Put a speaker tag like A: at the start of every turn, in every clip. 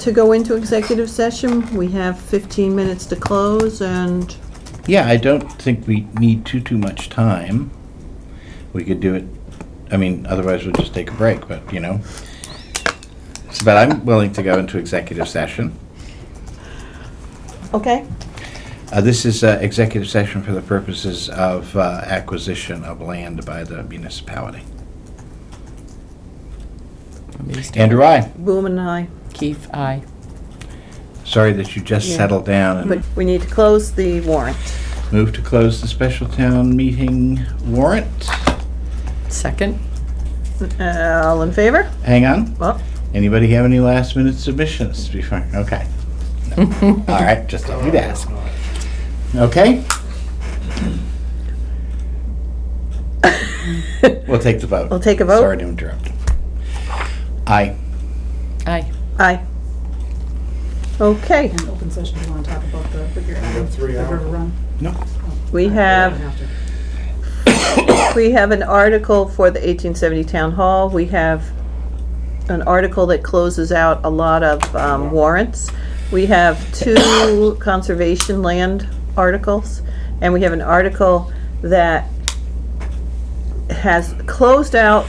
A: to go into executive session. We have 15 minutes to close, and
B: Yeah, I don't think we need too, too much time. We could do it, I mean, otherwise we'll just take a break, but, you know. So, But I'm willing to go into executive session.
A: okay?
B: Uh, This is uh, executive session for the purposes of uh, acquisition of land by the municipality. Andrew, I,
A: Boom and I.
C: Keith, aye.
B: sorry that you just
A: Yeah.
B: settled down
A: But
B: and
A: we need to close the warrant.
B: moved to close the special town meeting warrant.
C: Second?
A: Uh, All in favor?
B: Hang on.
A: Well,
B: Anybody have any last minute submissions before? Okay. No. All right, just thought we'd ask. Okay? We'll take the vote.
A: We'll take a vote.
B: Sorry to interrupt. Aye.
C: Aye.
A: aye. Okay,
D: In open session, you want to talk about the, what you're adding, the
E: three
D: river
E: hours.
D: run?
B: No.
A: we
D: You
A: have,
D: have to.
A: we have an article for the 1870 Town Hall. We have an article that closes out a lot of um, warrants. We have two conservation land articles, and we have an article that has closed out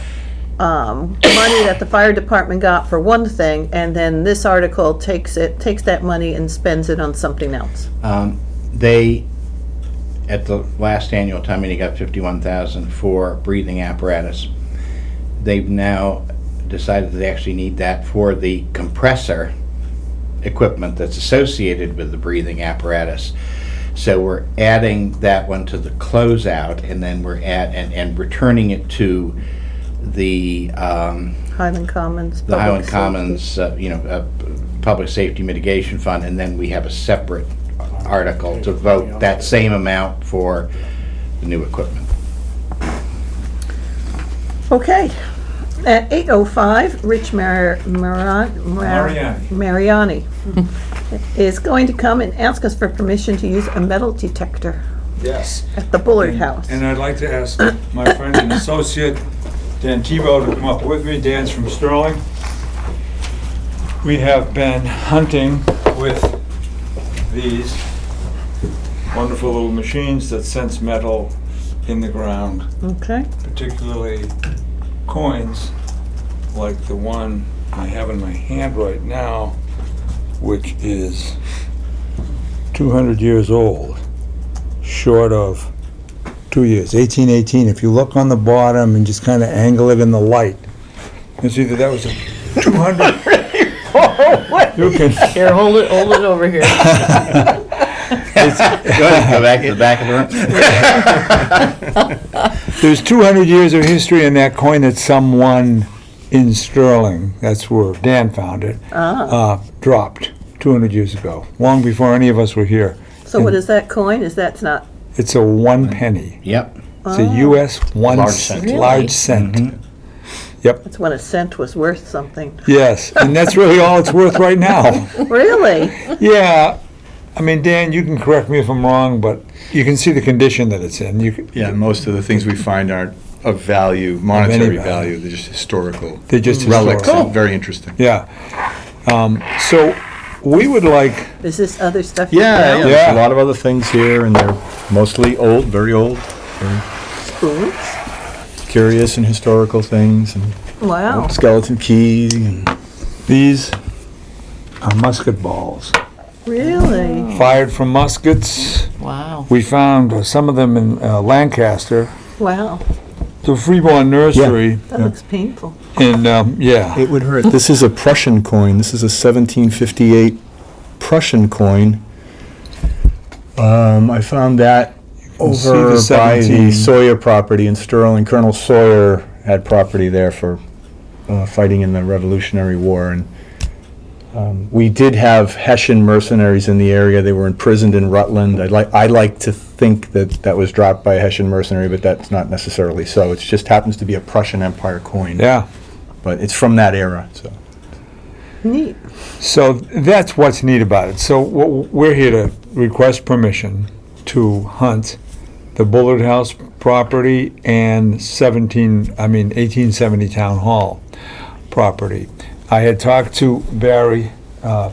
A: um, money that the fire department got for one thing, and then this article takes it, takes that money and spends it on something else.
B: Um, They, at the last annual town meeting, got fifty-one thousand for breathing apparatus. They've now decided that they actually need that for the compressor equipment that's associated with the breathing apparatus. So we're adding that one to the closeout, and then we're at, and, and returning it to the, um,
A: Highland Commons.
B: the
A: Public
B: Highland
A: Safety.
B: Commons, uh, you know, uh, Public Safety Mitigation Fund, and then we have a separate article to vote that same amount for the new equipment.
A: Okay. At 8:05, Rich Mar- Maran- Mar-
E: Mariani.
A: Mariani is going to come and ask us for permission to use a metal detector
E: Yes.
A: at the Bullard House.
E: And I'd like to ask my friend and associate, Dan Tebow, to come up with me. Dan's from Sterling. We have been hunting with these wonderful little machines that sense metal in the ground,
A: Okay,
E: particularly coins, like the one I have in my hand right now, which is 200 years old, short of two years, 1818. If you look on the bottom and just kind of angle it in the light, you see that that was a 200. You can,
C: Here, hold it, hold it over here.
B: Go ahead, go back to the back of the room.
E: there's 200 years of history in that coin that someone in Sterling, that's where Dan found it, uh, dropped 200 years ago, long before any of us were here.
A: so what is that coin? Is that's not,
E: It's a one penny.
B: Yep,
E: It's a U.S. one
B: Large
E: c-
B: cent.
C: Really?
E: large cent.
F: Mm-hmm.
A: that's when a cent was worth something.
E: Yes, and that's really all it's worth right now.
A: Really?
E: Yeah, I mean, Dan, you can correct me if I'm wrong, but you can see the condition that it's in. You, c-
F: Yeah, most of the things we find aren't of value, monetary
E: value.
F: value, Oh. they're just historical
E: they're just
F: relics,
E: historical.
F: and very interesting.
E: Yeah. Um, so we would like.
A: Is this other stuff? you
F: Yeah, yeah,
A: found?
F: there's
E: Yeah.
F: a lot of other things here, and they're mostly old, very old,
A: Spoons?
F: curious and historical things, and
A: Wow,
F: skeleton keys, and
E: These are musket balls
A: really?
E: fired from muskets.
C: Wow.
E: We found some of them in uh, Lancaster,
A: Wow,
E: the Freeborn Nursery.
A: that looks painful.
E: And um, yeah,
F: it would hurt. This is a Prussian coin, this is a 1758 Prussian coin. Um, I found that
E: Oh, see the
F: over by
E: 17.
F: the Sawyer property in Sterling. Colonel Sawyer had property there for uh, fighting in the Revolutionary War, and um, we did have Hessian mercenaries in the area. They were imprisoned in Rutland. I'd like, I like to think that that was dropped by a Hessian mercenary, but that's not necessarily so. It just happens to be a Prussian Empire coin.
E: yeah.
F: But it's from that era, so.
A: Neat.
E: So that's what's neat about it. So what- we're here to request permission to hunt the Bullard House property and 17, I mean 1870 Town Hall property. I had talked to Barry uh,